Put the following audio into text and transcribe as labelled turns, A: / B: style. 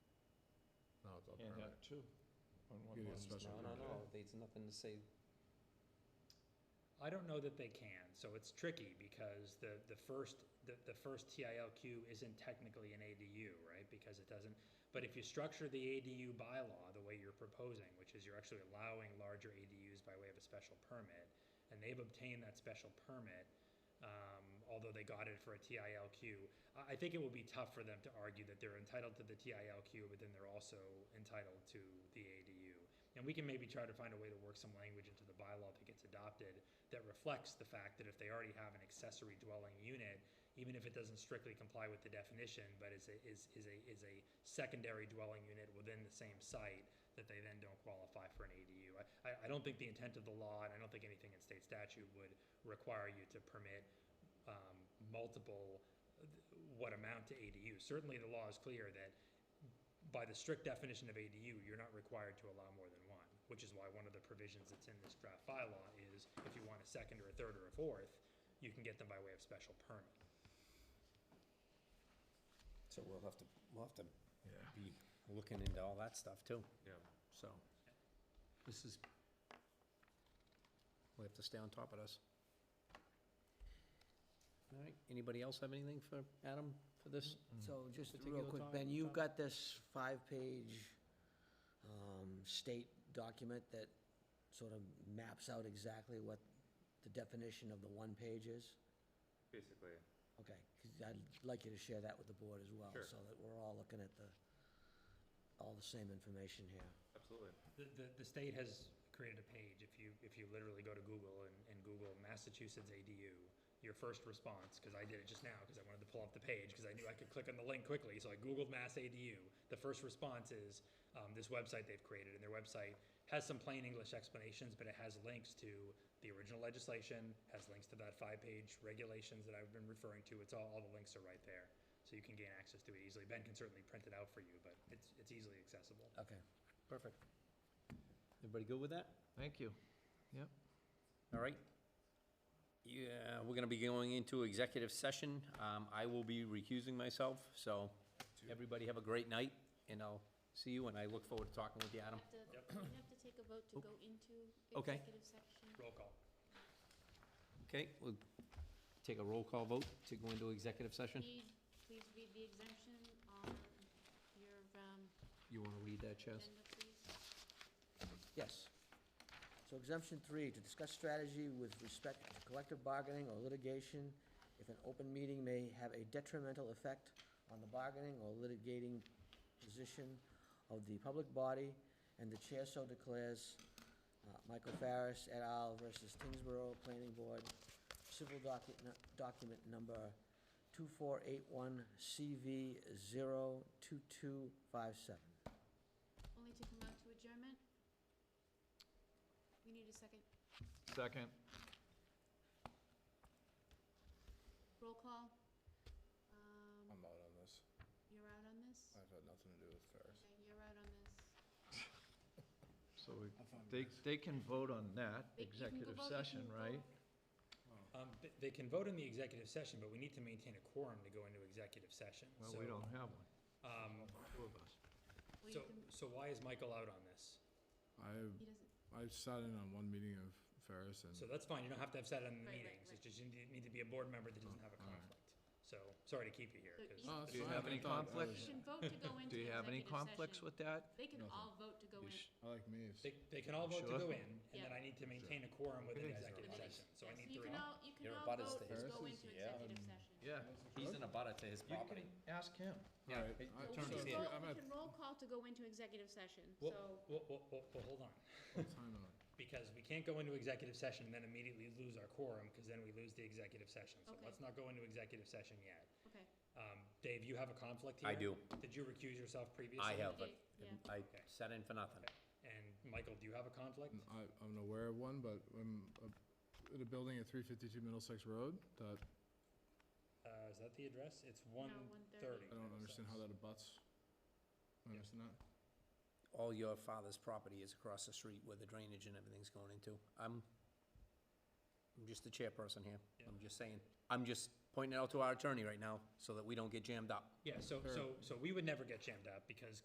A: outdoor
B: and
A: permit.
B: have two. on one
A: Get a
B: lot.
A: special
C: No, no, no, there's nothing to say,
D: I don't know that they can, so it's tricky because the, the first, the, the first TILQ isn't technically an ADU, right? Because it doesn't, but if you structure the ADU bylaw the way you're proposing, which is you're actually allowing larger ADUs by way of a special permit, and they've obtained that special permit, um, although they got it for a TILQ, I, I think it will be tough for them to argue that they're entitled to the TILQ, but then they're also entitled to the ADU. And we can maybe try to find a way to work some language into the bylaw that gets adopted that reflects the fact that if they already have an accessory dwelling unit, even if it doesn't strictly comply with the definition, but is a, is, is a, is a secondary dwelling unit within the same site, that they then don't qualify for an ADU. I- I, I don't think the intent of the law, and I don't think anything in state statute would require you to permit, um, multiple, uh, what amount to ADU. Certainly, the law is clear that by the strict definition of ADU, you're not required to allow more than one, which is why one of the provisions that's in this draft bylaw is if you want a second or a third or a fourth, you can get them by way of special permit.
C: so we'll have to, we'll have to
A: Yeah.
C: be looking into all that stuff too,
A: Yeah.
C: so. This is, we have to stay on top of this. All right, anybody else have anything for Adam for this?
E: So just
C: Particular
E: real quick,
C: time-
E: Ben, you've
C: time?
E: got this five-page um, state document that sort of maps out exactly what the definition of the one page is?
F: Basically,
E: Okay, 'cause I'd like you to share that with the board as well,
F: Sure.
E: so that we're all looking at the, all the same information here.
F: absolutely.
D: The, the, the state has created a page, if you, if you literally go to Google and, and Google Massachusetts ADU, your first response, because I did it just now, because I wanted to pull up the page, because I knew I could click on the link quickly, so I Googled Mass ADU. The first response is, um, this website they've created, and their website has some plain English explanations, but it has links to the original legislation, has links to that five-page regulations that I've been referring to, it's all, all the links are right there. So you can gain access to it easily. Ben can certainly print it out for you, but it's, it's easily accessible.
E: Okay.
C: Perfect. Everybody good with that?
B: Thank you. Yep.
C: All right. Yeah, we're gonna be going into executive session. Um, I will be recusing myself, so everybody have a great night, and I'll see you, and I look forward to talking with you, Adam.
G: have to, we have to take a vote to go into
C: Okay.
G: executive section.
D: Roll call.
C: Okay, we'll take a roll call vote to go into executive session.
G: Read, please read the exemption on your, um,
C: You wanna read that, Chaz?
G: agenda, please.
E: Yes. So exemption three, to discuss strategy with respect to collective bargaining or litigation if an open meeting may have a detrimental effect on the bargaining or litigating position of the public body, and the chair so declares, uh, Michael Farris et al. versus Tingsborough Planning Board, civil document, document number 2481CV02257.
G: Only to come out to adjournment. We need a second.
B: Second.
G: Roll call. Um,
A: I'm out on this.
G: you're out on this?
D: uh,
A: I've had nothing to do with Ferris.
G: Okay, you're out on this.
B: So we, they, they can vote on that,
G: They- you can go
B: executive
G: vote, you
B: session,
G: can
B: right?
G: vote.
D: Um, th- they can vote in the executive session, but we need to maintain a quorum to go into executive session.
B: Well,
D: So,
B: we don't have one,
D: Um,
B: two of us.
G: Well, you
D: so,
G: can-
D: so why is Michael out on this?
A: I,
G: He doesn't,
A: I sat in on one meeting of Ferris
B: Mm.
D: So
A: and,
D: that's fine, you don't have to have sat in the
G: Right, right,
D: meetings, it's
G: right.
D: just you need need to be a board member that doesn't have a
A: All right.
D: conflict. So, sorry to keep you here,
G: So
D: 'cause-
G: you- Oh,
A: that's
B: Do you
A: fine.
B: have
A: I
B: any
A: thought I
G: you
B: conflicts?
G: can vote to go into
B: Do you have any
G: executive
B: conflicts
G: session.
B: with that?
G: They can all vote to go
B: You
G: in.
B: sh-
A: I like Maeve's.
D: they, they can all vote to
B: Sure.
D: go in, and then
G: Yeah.
D: I need to maintain a quorum with an
B: Sure.
D: executive
G: Yes.
D: session, so I
G: Yes,
D: need
G: You
D: three.
G: can all, you can
C: You're
G: all
C: about as
G: vote to go
A: Pharisees,
G: into
C: yeah.
G: executive session.
B: Yeah,
C: He's in a butter to his
B: you
C: property.
B: can ask him.
C: Yeah.
A: All right, I
G: We
A: turned
G: can
A: it-
G: roll-
A: I'm
G: we
A: at,
G: can roll call to go into executive session,
D: Well,
G: so,
D: well, well, well, well, hold on,
A: what time am I?
D: because we can't go into executive session and then immediately lose our quorum, because then we lose the executive session. So
G: Okay.
D: let's not go into executive session yet.
G: okay.
D: Um, Dave, you have a conflict here?
C: I do.
D: Did you recuse yourself previously?
C: I have, but
G: Yeah.
C: I sat in for nothing.
D: And Michael, do you have a conflict?
A: I, I'm aware of one, but I'm uh, at a building at three fifty-two Middlesex Road that,
D: Uh, is that the address? It's one
G: 1:30.
D: thirty.
A: I don't understand how that abuts. I don't understand that.
C: All your father's property is across the street where the drainage and everything's going into. I'm, I'm just the chairperson here. I'm just saying, I'm just pointing it out to our attorney right now so that we don't get jammed up.
D: Yeah, so, so, so we would never get jammed up because